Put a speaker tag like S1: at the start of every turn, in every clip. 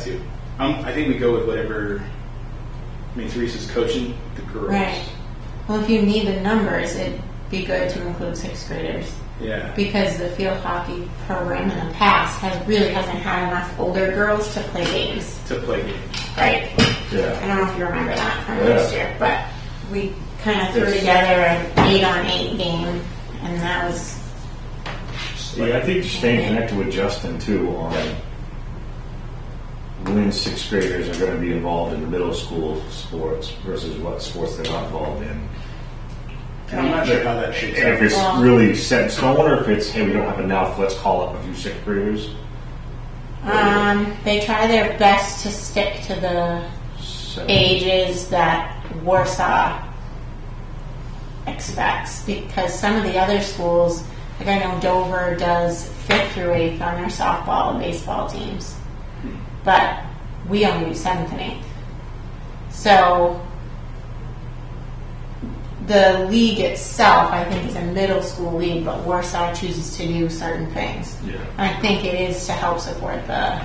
S1: too. Um, I think we go with whatever. I mean, Teresa's coaching the girls.
S2: Right. Well, if you need the numbers, it'd be good to include sixth graders
S1: Yeah.
S2: because the field hockey program in the past has really hasn't had enough older girls to play games.
S1: to play games.
S2: Right. I
S3: Yeah.
S2: don't know if you remember that from
S3: Yeah.
S2: last year, but we kind of threw together an eight on eight game, and that was
S3: Yeah, I think staying connected with Justin too on when sixth graders are gonna be involved in the middle school sports versus what sports they're not involved in.
S1: And I'm not sure how that shakes
S3: And if
S1: out.
S3: it's
S2: Well-
S3: really set in stone, or if it's, hey, we don't have enough, let's call up a few sixth graders.
S2: um, they try their best to stick to the
S3: So-
S2: ages that Warsaw expects because some of the other schools, like I know Dover does fifth through eighth on their softball and baseball teams, but we only do seventh and eighth. So the league itself, I think, is a middle school league, but Warsaw chooses to do certain things.
S3: Yeah.
S2: I think it is to help support the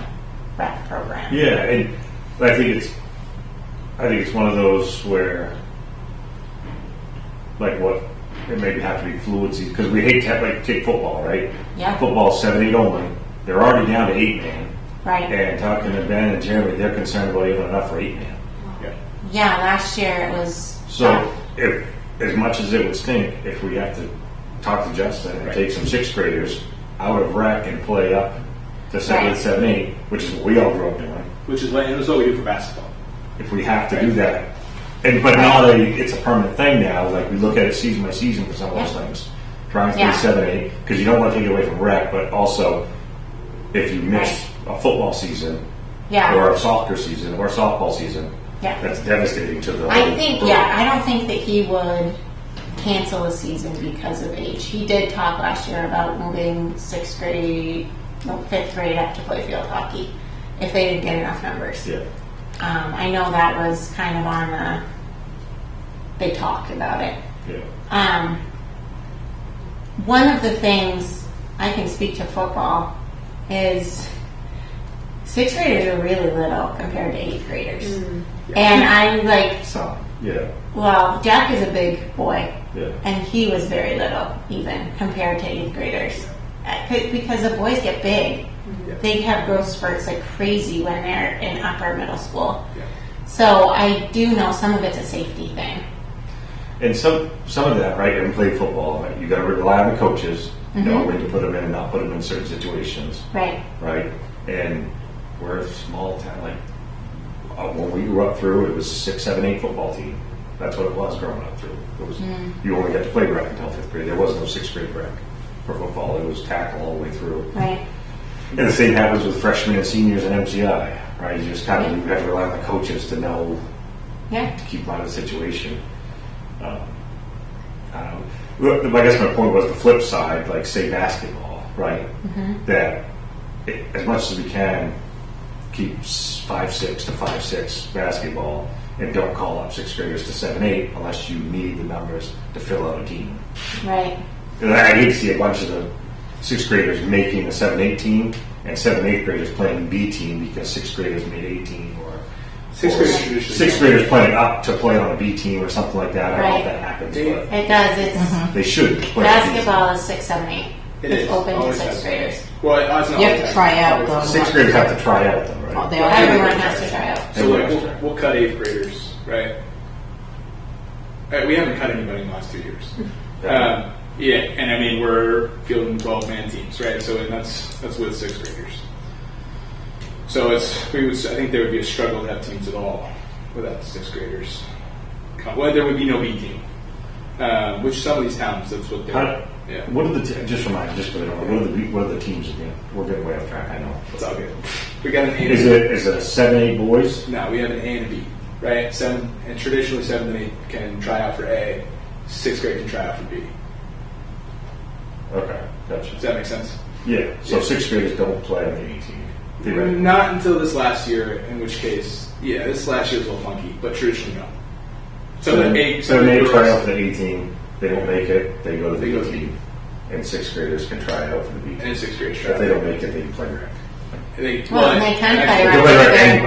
S2: rec program.
S3: Yeah, and but I think it's I think it's one of those where like what it maybe have to be fluency because we hate to have like take football, right?
S2: Yeah.
S3: Football seven eight only. They're already down to eight man.
S2: Right.
S3: And talking to Ben and Jeremy, they're concerned about even enough for eight man.
S1: Yeah.
S2: Yeah, last year it was.
S3: So if as much as it would stink if we have to talk to Justin and
S1: Right.
S3: take some sixth graders out of rec and play up to seven
S2: Right.
S3: seven eight, which is what we all grew up doing.
S1: Which is what, and that's what we do for basketball.
S3: if we have to do that. And but now they, it's a permanent thing now. Like we look at it season by season for some of those
S2: Yeah.
S3: things. Trying
S2: Yeah.
S3: through seven, eight, because you don't want to take it away from rec, but also if you miss a football season
S2: yeah,
S3: or a soccer season or softball season,
S2: Yeah.
S3: that's devastating to the.
S2: I
S3: whole
S2: think
S3: group.
S2: yeah, I don't think that he would cancel a season because of age. He did talk last year about moving sixth grade, no, fifth grade up to play field hockey if they didn't get enough numbers.
S3: Yeah.
S2: Um, I know that was kind of on the. They talked about it.
S3: Yeah.
S2: Um, one of the things I can speak to football is sixth graders are really little compared to eighth graders. And I like,
S3: So yeah.
S2: well, Jack is a big boy,
S3: Yeah.
S2: and he was very little even compared to eighth graders. Uh, c- Because the boys get big,
S1: Yeah.
S2: they have growth spurts like crazy when they're in upper middle school.
S1: Yeah.
S2: So I do know some of it's a safety thing.
S3: And some some of that, right? And play football, right? You got to rely on the coaches,
S2: Mm-hmm.
S3: know when to put them in and not put them in certain situations.
S2: Right.
S3: right? And we're a small town. Like uh, when we grew up through, it was six, seven, eight football team. That's what it was growing up through. It was you only got to play rec until fifth grade. There was no sixth grade rec for football. It was tackle all the way through.
S2: Right.
S3: And the same happens with freshmen and seniors in MCI, right? You just kind of you have to rely on the coaches to know
S2: Yeah.
S3: to keep them out of the situation. Um, I don't know. Well, I guess my point was the flip side, like say basketball, right? That it, as much as we can, keep s- five six to five six basketball, and don't call up sixth graders to seven eight unless you need the numbers to fill out a team.
S2: Right.
S3: And I hate to see a bunch of the sixth graders making a seven eight team and seven eighth graders playing B team because sixth graders made eighteen or
S1: Sixth
S3: or
S1: graders traditionally
S3: sixth
S1: don't.
S3: graders playing up to play on a B team or something like that. I don't know if
S2: Right.
S3: that happens,
S1: They-
S3: but
S2: It does. It's
S3: they should play on a B team.
S2: basketball is six, seven, eight.
S1: It
S2: it's
S1: is.
S2: open to
S1: Always
S2: sixth
S1: has.
S2: graders.
S1: Well, it- it's not
S4: You have
S1: always
S4: to
S1: has.
S4: try out,
S1: Always
S4: though.
S1: has.
S3: Sixth graders have to try out though, right?
S4: Oh, they
S1: I agree.
S2: Everyone has to try out.
S1: So like, we'll, we'll cut eighth graders, right? Uh, we haven't cut anybody in the last two years. Um, yeah, and I mean we're fielding twelve man teams, right? So and that's that's with sixth graders. So it's we would I think there would be a struggle to have teams at all without sixth graders. Well, there would be no B team, um, which some of these towns that's what they're.
S3: How-
S1: yeah,
S3: What are the te- just remind just for the what are the what are the teams again? We're getting way off track. I know.
S1: it's all good. We got an A.
S3: Is it is it a seven eight boys?
S1: No, we have an A and a B, right? Seven and traditionally seven and eight can try out for A, sixth grade can try out for B.
S3: Okay, gotcha.
S1: Does that make sense?
S3: Yeah. So
S1: Yeah. Mm-hmm.
S3: sixth graders don't play on the A team. Theoretically.
S1: Not until this last year, in which case, yeah, this last year was a little funky, but traditionally no. So the A,
S3: so
S1: so
S3: they
S1: the
S3: try out
S1: girls,
S3: for the A team. They don't make it. They go to the
S1: They go
S3: B
S1: to the B.
S3: team, and sixth graders can try out for the B
S1: and
S3: team.
S1: sixth grade try.
S3: If they don't make it, they can play rec.
S5: They,
S6: Well, and they kind of
S5: actually-
S6: play
S2: They play right angle.